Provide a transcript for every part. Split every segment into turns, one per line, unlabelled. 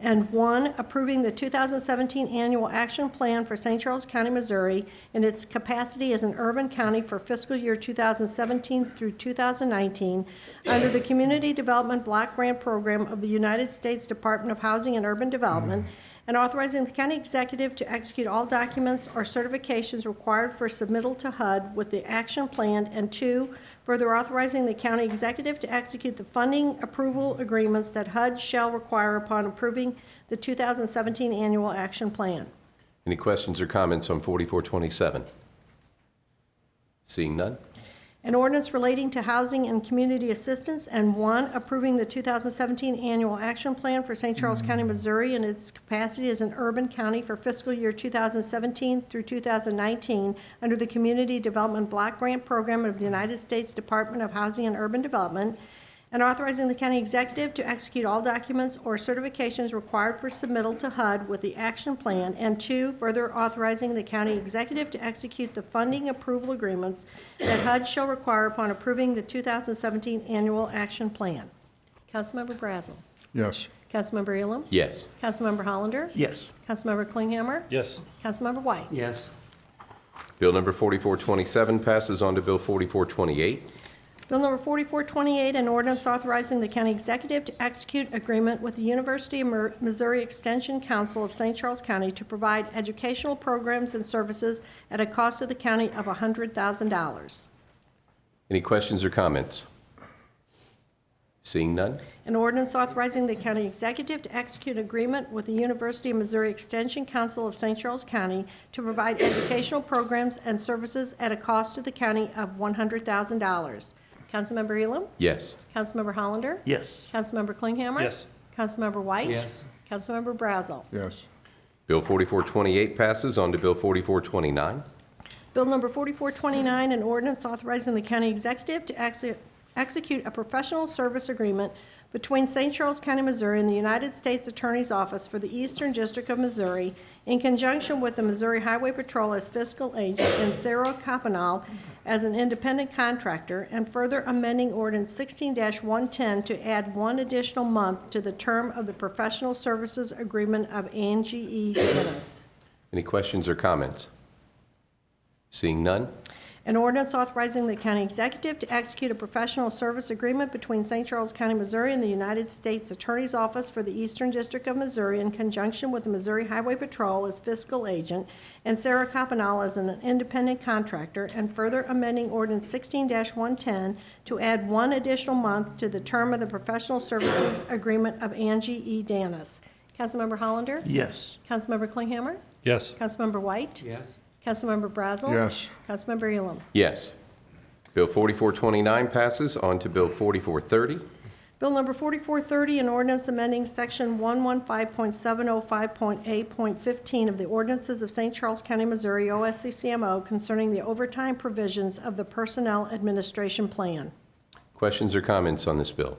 and one, approving the 2017 Annual Action Plan for St. Charles County, Missouri in its capacity as an urban county for fiscal year 2017 through 2019 under the Community Development Block Grant Program of the United States Department of Housing and Urban Development, and authorizing the county executive to execute all documents or certifications required for submittal to HUD with the action plan, and two, further authorizing the county executive to execute the funding approval agreements that HUD shall require upon approving the 2017 annual action plan.
Any questions or comments on 4427? Seeing none?
An ordinance relating to housing and community assistance, and one, approving the 2017 Annual Action Plan for St. Charles County, Missouri in its capacity as an urban county for fiscal year 2017 through 2019 under the Community Development Block Grant Program of the United States Department of Housing and Urban Development, and authorizing the county executive to execute all documents or certifications required for submittal to HUD with the action plan, and two, further authorizing the county executive to execute the funding approval agreements that HUD shall require upon approving the 2017 annual action plan. Councilmember Brazel.
Yes.
Councilmember Ehlum.
Yes.
Councilmember Hollander.
Yes.
Councilmember Klinghammer.
Yes.
Councilmember White.
Yes.
Bill number 4427 passes on to Bill 4428.
Bill number 4428, an ordinance authorizing the county executive to execute agreement with the University of Mer- Missouri Extension Council of St. Charles County to provide educational programs and services at a cost to the county of $100,000.
Any questions or comments? Seeing none?
An ordinance authorizing the county executive to execute agreement with the University of Missouri Extension Council of St. Charles County to provide educational programs and services at a cost to the county of $100,000. Councilmember Elam?
Yes.
Councilmember Hollander?
Yes.
Councilmember Klinghammer?
Yes.
Councilmember White?
Yes.
Councilmember Brazel?
Yes.
Bill 4428 passes on to Bill 4429.
Bill number 4429, an ordinance authorizing the county executive to exe- execute a professional service agreement between St. Charles County, Missouri and the United States Attorney's Office for the Eastern District of Missouri in conjunction with the Missouri Highway Patrol as fiscal agent and Sarah Copenal as an independent contractor, and further amending ordinance 16-110 to add one additional month to the term of the professional services agreement of Angie E. Dennis.
Any questions or comments? Seeing none?
An ordinance authorizing the county executive to execute a professional service agreement between St. Charles County, Missouri and the United States Attorney's Office for the Eastern District of Missouri in conjunction with the Missouri Highway Patrol as fiscal agent and Sarah Copenal as an independent contractor, and further amending ordinance 16-110 to add one additional month to the term of the professional services agreement of Angie E. Danis. Councilmember Hollander?
Yes.
Councilmember Klinghammer?
Yes.
Councilmember White?
Yes.
Councilmember Brazel?
Yes.
Councilmember Elam?
Yes. Bill 4429 passes on to Bill 4430.
Bill number 4430, an ordinance amending section 115.705.8.15 of the ordinances of St. Charles County, Missouri, OSCCMO concerning the overtime provisions of the Personnel Administration Plan.
Questions or comments on this bill?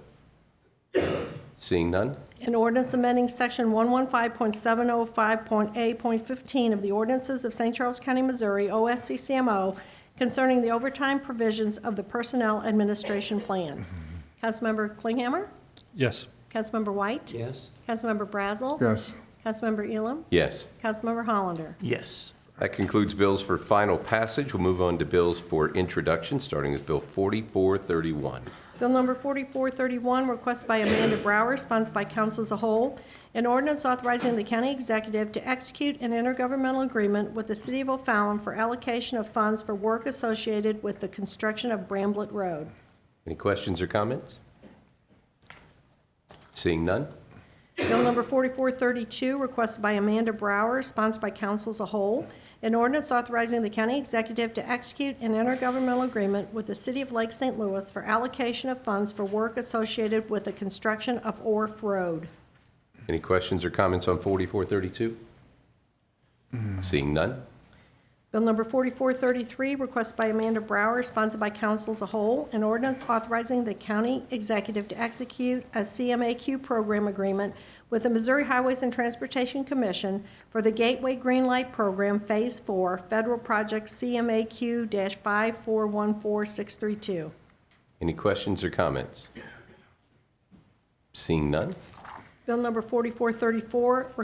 Seeing none?
An ordinance amending section 115.705.8.15 of the ordinances of St. Charles County, Missouri, OSCCMO concerning the overtime provisions of the Personnel Administration Plan. Councilmember Klinghammer?
Yes.
Councilmember White?
Yes.
Councilmember Brazel?
Yes.
Councilmember Elam?
Yes.
Councilmember Hollander.
Yes.
That concludes bills for final passage. We'll move on to bills for introduction, starting with Bill 4431.
Bill number 4431, request by Amanda Brower, sponsored by council as a whole, an ordinance authorizing the county executive to execute an intergovernmental agreement with the city of O'Fallon for allocation of funds for work associated with the construction of Bramblett Road.
Any questions or comments? Seeing none?
Bill number 4432, requested by Amanda Brower, sponsored by council as a whole, an ordinance authorizing the county executive to execute an intergovernmental agreement with the city of Lake St. Louis for allocation of funds for work associated with the construction of Orf Road.
Any questions or comments on 4432? Seeing none?
Bill number 4433, request by Amanda Brower, sponsored by council as a whole, an ordinance authorizing the county executive to execute a CMAQ program agreement with the Missouri Highways and Transportation Commission for the Gateway Green Light Program Phase 4, Federal Project CMAQ-5414632.
Any questions or comments? Seeing none?
Bill number 4434,